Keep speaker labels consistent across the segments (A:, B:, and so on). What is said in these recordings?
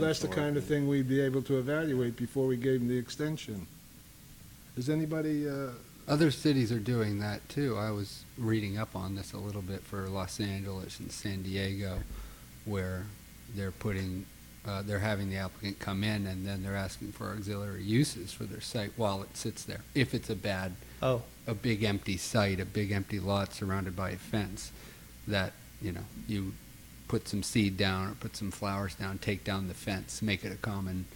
A: That's the kind of thing we'd be able to evaluate before we gave them the extension. Is anybody, uh,
B: Other cities are doing that too. I was reading up on this a little bit for Los Angeles and San Diego, where they're putting, uh, they're having the applicant come in and then they're asking for auxiliary uses for their site while it sits there. If it's a bad,
C: Oh,
B: a big empty site, a big empty lot surrounded by a fence, that, you know, you put some seed down or put some flowers down, take down the fence, make it a common,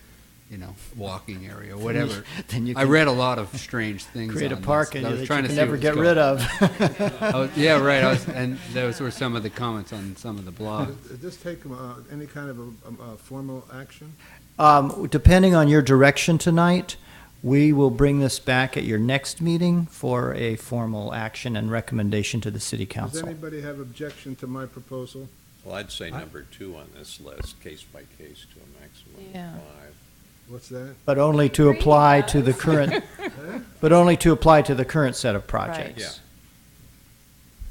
B: you know, walking area, whatever.
C: Then you
B: I
C: can
B: read a lot of strange things.
C: create a
B: on
C: park
B: this,
C: and
B: but I was
C: that you
B: trying to
C: can
B: see
C: never
B: what was going-
C: get rid of.
B: I was- Oh, yeah, right. I was, and those were some of the comments on some of the blogs.
A: does this take uh, any kind of a- um, uh, formal action?
C: Um, depending on your direction tonight, we will bring this back at your next meeting for a formal action and recommendation to the city
A: Does
C: council.
A: anybody have objection to my proposal?
D: Well, I'd say
C: I-
D: number two on this list, case by case to a maximum
E: Yeah.
D: of five.
A: What's that?
C: But only to
E: Three
C: apply to the
E: does.
C: current, but only to apply to the current set of
E: Right.
C: projects.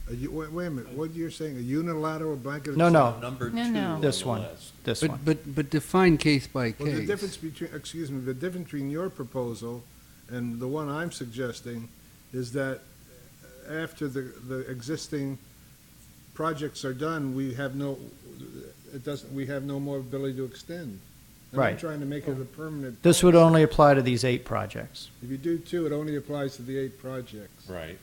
A: Are you- Wait wait a minute, what you're saying, a unilateral blanket?
C: No, no.
D: Number two
E: No,
D: on
E: no.
D: the
C: This one.
D: list.
C: This one.
B: But, but, but define case by
A: Well, the
B: case.
A: difference between, excuse me, the difference between your proposal and the one I'm suggesting is that after the, the existing projects are done, we have no, it doesn't, we have no more ability to extend. And I'm
C: Right.
A: trying to make it a permanent.
C: This would only apply to these eight projects.
A: If you do two, it only applies to the eight projects.
D: Right.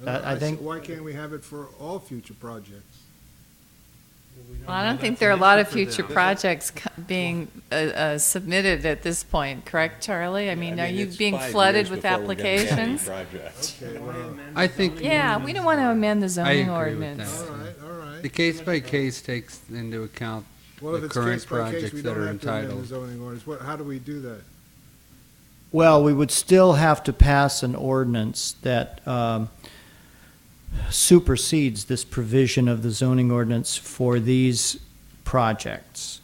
A: And
C: I- I
A: s-
C: think-
A: Why can't we have it for all future projects?
E: Well, I don't think there are a lot of future projects co- being uh, uh, submitted at this point, correct, Charlie? I mean, are you
D: it's
E: being
D: five
E: flooded
D: years
E: with
D: before we're gonna get any
E: applications?
D: Projects.
A: Okay, well,
B: I think
E: Yeah, we don't want to amend the zoning
B: agree with
E: ordinance.
A: all right, all right.
B: the case by case takes into account
A: Well, if
B: the
A: it's
B: current
A: case by case,
B: projects
A: we
B: that
A: don't
B: are
A: have to amend the
B: entitled.
A: zoning ordinance. What, how do we do that?
C: Well, we would still have to pass an ordinance that um, supersedes this provision of the zoning ordinance for these projects.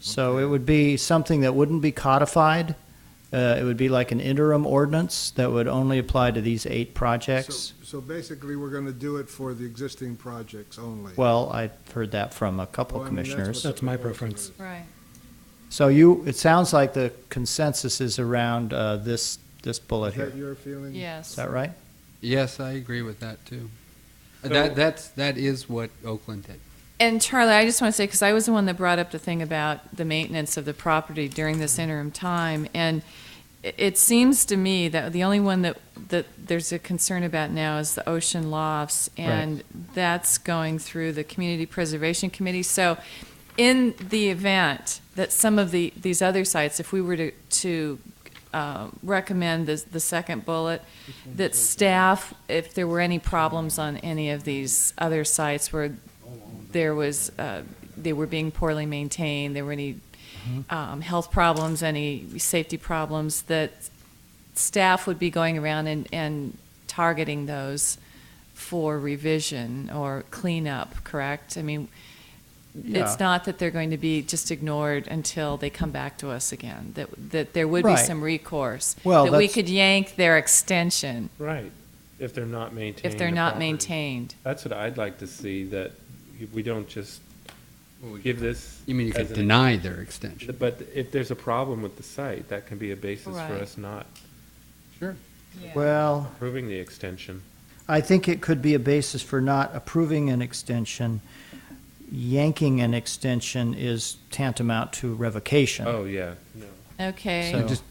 C: So it would be something that wouldn't be codified. Uh, It would be like an interim ordinance that would only apply to these eight projects.
A: So so basically, we're going to do it for the existing projects only.
C: Well, I've heard that from a couple
A: Well, Oh, I mean, that's what
C: commissioners.
A: the
F: That's my
A: proposal
F: preference.
A: is.
E: Right.
C: So you, it sounds like the consensus is around uh, this, this bullet
A: Is
C: here.
A: that your feeling?
C: Is
E: Yes.
C: that right?
B: Yes, I agree with that too. that that's that is what Oakland did.
E: And Charlie, I just want to say, because I was the one that brought up the thing about the maintenance of the property during this interim time, and i- it seems to me that the only one that, that there's a concern about now is the ocean lofts, and that's going through the Community Preservation Committee. So in the event that some of the, these other sites, if we were to, to uh, recommend the, the second bullet, that staff, if there were any problems on any of these other sites where there was, uh, they were being poorly maintained, there were any
C: Mm-hmm.
E: um, health problems, any safety problems, that staff would be going around and, and targeting those for revision or cleanup, correct? I mean,
C: Yeah.
E: it's not that they're going to be just ignored until they come back to us again, that, that there would be
C: Right.
E: some recourse.
C: Well,
E: That we
C: that's-
E: could yank their extension
F: Right, if they're not maintained.
E: if they're not maintained.
F: That's what I'd like to see, that we don't just give this.
B: You mean you
F: as
B: could
F: an-
B: deny their extension?
F: But if there's a problem with the site, that can be a basis for
E: Right.
F: us not
B: Sure.
C: Well,
F: approving the extension.
C: I think it could be a basis for not approving an extension. Yanking an extension is tantamount to revocation.
F: Oh, yeah, no.
E: Okay.
C: So-
B: So just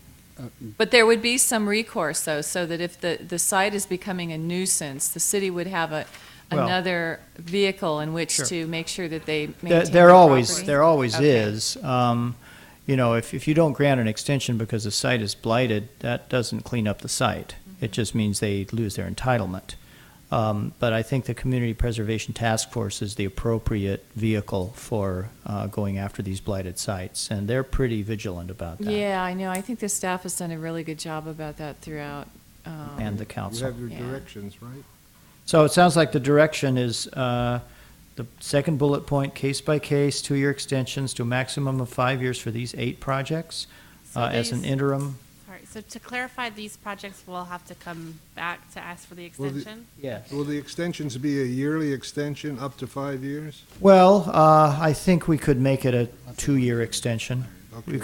E: But there would be some recourse, though, so that if the, the site is becoming a nuisance, the city would have a,
C: Well-
E: another vehicle in which
C: Sure.
E: to make sure that they maintain
C: There,
E: their
C: there always,
E: property.
C: there always
E: Okay.
C: is. Um, you know, if, if you don't grant an extension because the site is blighted, that doesn't clean up the site.
E: Mm-hmm.
C: It just means they lose their entitlement. Um, but I think the Community Preservation Task Force is the appropriate vehicle for, uh, going after these blighted sites, and they're pretty vigilant about that.
E: Yeah, I know. I think the staff has done a really good job about that throughout. um,
C: And the
A: You
C: council.
A: have your
E: Yeah.
A: directions, right?
C: So it sounds like the direction is uh, the second bullet point, case by case, two-year extensions to a maximum of five years for these eight projects
G: So
C: uh, as an
G: these-
C: interim.
G: Sorry, so to clarify, these projects will have to come back to ask for the
A: Well, the-
G: extension?
C: Yes.
A: Will the extensions be a yearly extension up to five years?
C: Well, uh, I think we could make it a two-year extension.
A: Okay.